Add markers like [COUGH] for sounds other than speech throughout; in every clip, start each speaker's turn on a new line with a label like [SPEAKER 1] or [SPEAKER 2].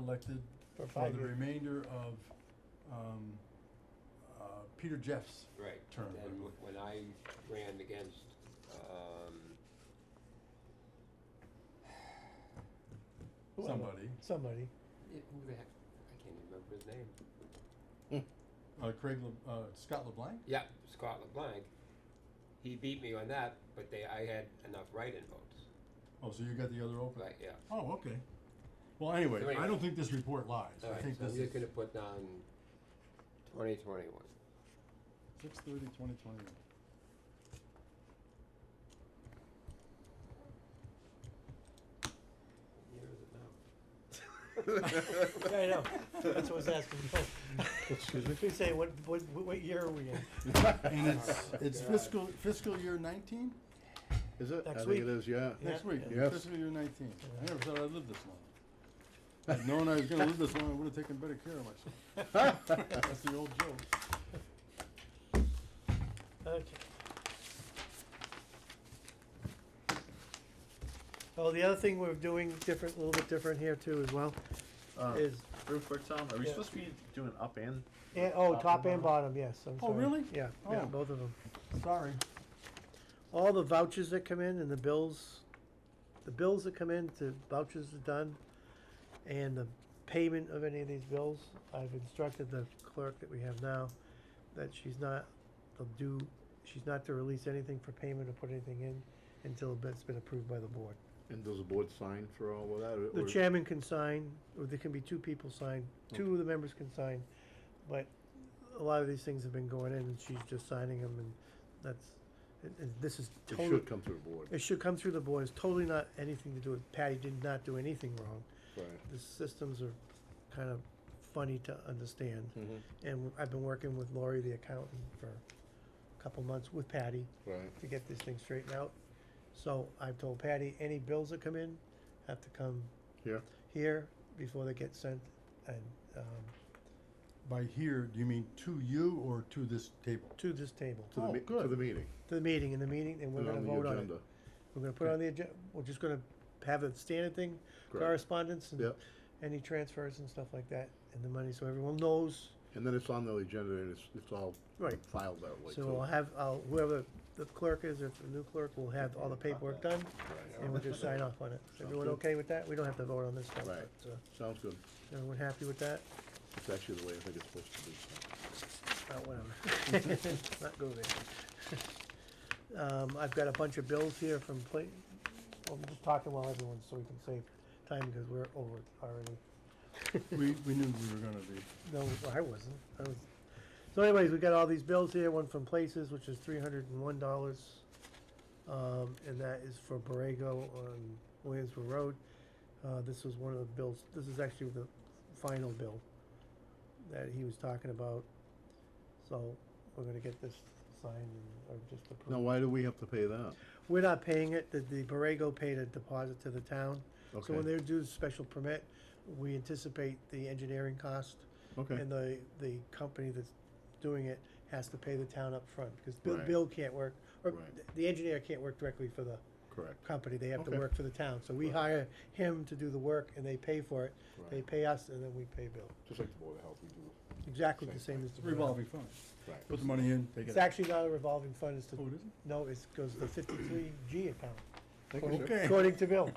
[SPEAKER 1] elected
[SPEAKER 2] for
[SPEAKER 1] for
[SPEAKER 2] five
[SPEAKER 1] the
[SPEAKER 2] years.
[SPEAKER 1] remainder of, um, uh, Peter Jeff's
[SPEAKER 3] Right,
[SPEAKER 1] term.
[SPEAKER 3] and wh- when I ran against, um,
[SPEAKER 2] Whoever.
[SPEAKER 1] somebody,
[SPEAKER 2] Somebody.
[SPEAKER 3] it- who the heck, I can't even remember his name.
[SPEAKER 1] uh, Craig, Le- uh, Scott LeBlanc?
[SPEAKER 3] Yeah, Scott LeBlanc, he beat me on that, but they, I had enough write-in votes,
[SPEAKER 1] Oh, so you got the other open?
[SPEAKER 3] right, yeah.
[SPEAKER 1] Oh, okay. Well, anyway,
[SPEAKER 3] So
[SPEAKER 1] I
[SPEAKER 3] anyway.
[SPEAKER 1] don't think this report lies. I
[SPEAKER 3] Alright,
[SPEAKER 1] think
[SPEAKER 3] so
[SPEAKER 1] this
[SPEAKER 3] I'm
[SPEAKER 1] is
[SPEAKER 3] just gonna put down twenty twenty-one.
[SPEAKER 1] six thirty, twenty twenty.
[SPEAKER 3] Year is it now?
[SPEAKER 2] [LAUGHS]
[SPEAKER 3] [LAUGHS]
[SPEAKER 2] Yeah, I know. That's what I was asking. Excuse [LAUGHS]
[SPEAKER 4] [LAUGHS]
[SPEAKER 2] me? We say, what, what, what year are we in?
[SPEAKER 1] And it's, it's
[SPEAKER 3] God.
[SPEAKER 1] fiscal, fiscal year nineteen,
[SPEAKER 4] Is it?
[SPEAKER 2] Next
[SPEAKER 4] I
[SPEAKER 2] week.
[SPEAKER 4] think it is, yeah.
[SPEAKER 1] next week,
[SPEAKER 4] yeah. Yes.
[SPEAKER 1] fiscal year nineteen. I
[SPEAKER 2] Yeah.
[SPEAKER 1] never thought I'd live this long. I'd known I was gonna live this long, I would've taken better care of myself. That's the old joke.
[SPEAKER 2] Okay. Oh, the other thing we're doing different, a little bit different here too as well,
[SPEAKER 4] Uh,
[SPEAKER 2] is,
[SPEAKER 4] real quick, Tom, are we
[SPEAKER 2] Yeah.
[SPEAKER 4] supposed to be doing up and?
[SPEAKER 2] eh, oh,
[SPEAKER 4] Top
[SPEAKER 2] top
[SPEAKER 4] and
[SPEAKER 2] and bottom, yes, I'm
[SPEAKER 1] Oh,
[SPEAKER 2] sorry.
[SPEAKER 1] really?
[SPEAKER 2] Yeah, yeah,
[SPEAKER 1] Oh.
[SPEAKER 2] both of them.
[SPEAKER 1] Sorry.
[SPEAKER 2] All the vouchers that come in and the bills, the bills that come in, the vouchers are done, and the payment of any of these bills, I've instructed the clerk that we have now that she's not to do, she's not to release anything for payment or put anything in until it's been approved by the board.
[SPEAKER 4] And does the board sign for all of that? or-
[SPEAKER 2] The
[SPEAKER 4] or-
[SPEAKER 2] chairman can sign, or there can be two people sign, two of the members can sign, but a lot of these things have been going in and she's just signing them and that's, and, and this is
[SPEAKER 4] It
[SPEAKER 2] totally.
[SPEAKER 4] should come through the board.
[SPEAKER 2] It should come through the board, it's totally not anything to do with, Patty did not do anything wrong.
[SPEAKER 4] Right.
[SPEAKER 2] The systems are kind of funny to understand. And I've been working with Lori, the accountant, for a couple months with Patty
[SPEAKER 4] Right.
[SPEAKER 2] to get this thing straightened out. So I've told Patty, any bills that come in have to come
[SPEAKER 4] Yeah.
[SPEAKER 2] here before they get sent and, um,
[SPEAKER 1] By here, do you mean to you or to this table?
[SPEAKER 2] to this table,
[SPEAKER 4] To the,
[SPEAKER 1] Oh,
[SPEAKER 4] me- to
[SPEAKER 1] good.
[SPEAKER 4] the meeting.
[SPEAKER 2] to the meeting, in the meeting, and we're
[SPEAKER 4] and
[SPEAKER 2] gonna
[SPEAKER 4] on the
[SPEAKER 2] vote on it.
[SPEAKER 4] agenda.
[SPEAKER 2] We're gonna put it on the agenda, we're just gonna have a standard thing,
[SPEAKER 4] Correct.
[SPEAKER 2] correspondence and
[SPEAKER 4] Yep.
[SPEAKER 2] any transfers and stuff like that, and the money, so everyone knows.
[SPEAKER 4] And then it's on the agenda and it's, it's all
[SPEAKER 2] Right.
[SPEAKER 4] filed that way.
[SPEAKER 2] So
[SPEAKER 4] too.
[SPEAKER 2] we'll have, I'll- whoever the clerk is, or if the new clerk, will have all the paperwork done,
[SPEAKER 4] Right.
[SPEAKER 2] and we'll just sign off on it. Is everyone
[SPEAKER 4] good.
[SPEAKER 2] okay with that? We don't have to vote on this stuff,
[SPEAKER 4] Right.
[SPEAKER 2] but, uh,
[SPEAKER 4] Sounds good.
[SPEAKER 2] everyone happy with that?
[SPEAKER 4] It's actually the way I think it's supposed to be. so.
[SPEAKER 2] Uh, whatever. [LAUGHS] Not go there. Um, I've got a bunch of bills here from pla- well, I'm just talking while everyone's, so we can save time, because we're over already.
[SPEAKER 1] [LAUGHS] We, we knew we were gonna be.
[SPEAKER 2] No, I wasn't. I was. So anyways, we got all these bills here, one from Places, which is three hundred and one dollars. Um, and that is for Borrego on Williamsville Road. Uh, this was one of the bills, this is actually the final bill that he was talking about. So we're gonna get this signed and, or just
[SPEAKER 4] Now,
[SPEAKER 2] approved.
[SPEAKER 4] why do we have to pay that?
[SPEAKER 2] We're not paying it, the, the Borrego paid a deposit to the town. So when
[SPEAKER 4] Okay.
[SPEAKER 2] they do the special permit, we anticipate the engineering cost.
[SPEAKER 4] Okay.
[SPEAKER 2] And the, the company that's doing it has to pay the town up front because Bill,
[SPEAKER 4] Right.
[SPEAKER 2] Bill can't work, or
[SPEAKER 4] Right.
[SPEAKER 2] th- the engineer can't work directly for the
[SPEAKER 4] Correct.
[SPEAKER 2] company, they have to
[SPEAKER 4] Okay.
[SPEAKER 2] work for the town, so we
[SPEAKER 4] Right.
[SPEAKER 2] hire him to do the work and they pay for it, they
[SPEAKER 4] Right.
[SPEAKER 2] pay us and then we pay Bill,
[SPEAKER 4] Just like the board of health, we do.
[SPEAKER 2] exactly the
[SPEAKER 4] Same
[SPEAKER 2] same as
[SPEAKER 1] It's
[SPEAKER 2] the.
[SPEAKER 1] a
[SPEAKER 2] board.
[SPEAKER 1] revolving fund.
[SPEAKER 4] Right.
[SPEAKER 1] Put the money in, take
[SPEAKER 2] It's
[SPEAKER 1] it out.
[SPEAKER 2] actually not a revolving fund, it's the,
[SPEAKER 1] Oh, it isn't?
[SPEAKER 2] no, it's, goes to the fifty-three G account,
[SPEAKER 4] Thank you, sir.
[SPEAKER 1] Okay,
[SPEAKER 2] according
[SPEAKER 1] [LAUGHS]
[SPEAKER 2] to Bill,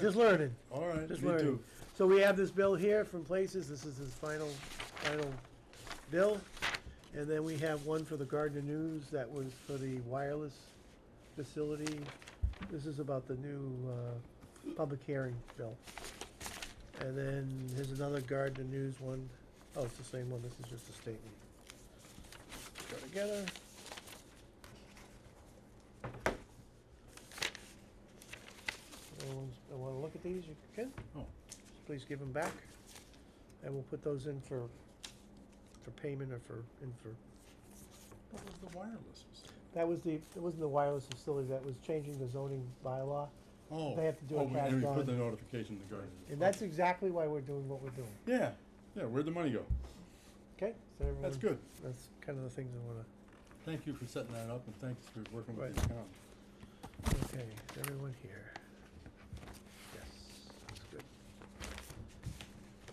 [SPEAKER 2] just learning.
[SPEAKER 1] all right, me
[SPEAKER 2] Just learning.
[SPEAKER 1] too.
[SPEAKER 2] So we have this bill here from Places, this is his final, final bill. And then we have one for the Gardner News, that was for the wireless facility. This is about the new, uh, public hearing bill. And then here's another Gardner News one. Oh, it's the same one, this is just a statement. Go together. Anyone wanna look at these, you can?
[SPEAKER 1] Oh.
[SPEAKER 2] please give them back. And we'll put those in for, for payment or for, in for,
[SPEAKER 1] What was the wireless? facility?
[SPEAKER 2] that was the, it wasn't the wireless facility, that was changing the zoning bylaw.
[SPEAKER 1] Oh.
[SPEAKER 2] They have to do
[SPEAKER 1] oh,
[SPEAKER 2] a
[SPEAKER 1] we-
[SPEAKER 2] cash
[SPEAKER 1] And we put
[SPEAKER 2] bond.
[SPEAKER 1] the notification in the garden.
[SPEAKER 2] And that's exactly why we're doing what we're doing,
[SPEAKER 1] Yeah, yeah, where'd the money go?
[SPEAKER 2] okay? So everyone.
[SPEAKER 1] That's good.
[SPEAKER 2] That's kind of the things I wanna,
[SPEAKER 1] Thank you for setting that up and thanks for working with
[SPEAKER 2] Right.
[SPEAKER 1] the town.
[SPEAKER 2] okay, everyone here.